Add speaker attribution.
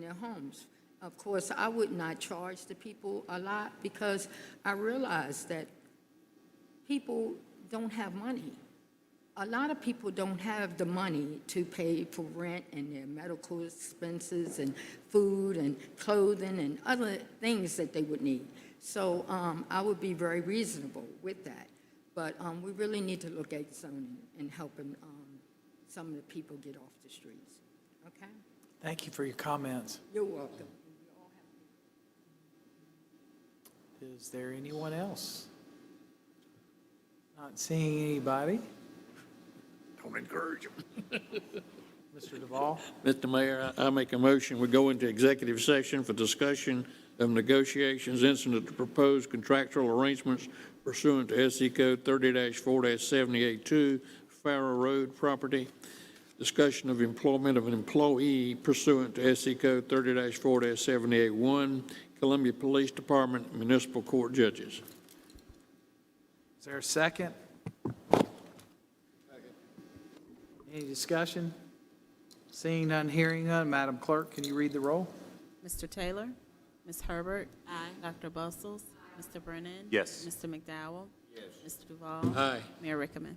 Speaker 1: their homes. Of course, I would not charge the people a lot because I realize that people don't have money. A lot of people don't have the money to pay for rent and their medical expenses and food and clothing and other things that they would need. So um, I would be very reasonable with that. But um, we really need to look at zoning and helping um, some of the people get off the streets. Okay?
Speaker 2: Thank you for your comments.
Speaker 1: You're welcome.
Speaker 2: Is there anyone else? Not seeing anybody.
Speaker 3: Don't encourage them.
Speaker 2: Mr. Duvall,
Speaker 4: Mr. Mayor, I I make a motion, we go into executive session for discussion of negotiations incident to proposed contractual arrangements pursuant to SC Code 30-4-782, Farrar Road property, discussion of employment of an employee pursuant to SC Code 30-4-781, Columbia Police Department, municipal court judges.
Speaker 2: is there a second? Any discussion? Seeing none, hearing none. Madam Clerk, can you read the roll?
Speaker 5: Mr. Taylor? Ms. Herbert? Aye. Dr. Bustles? Mr. Brennan?
Speaker 3: Yes.
Speaker 5: Mr. McDowell? Yes. Mr. Duval?
Speaker 4: Aye.
Speaker 5: Mayor Rickaman?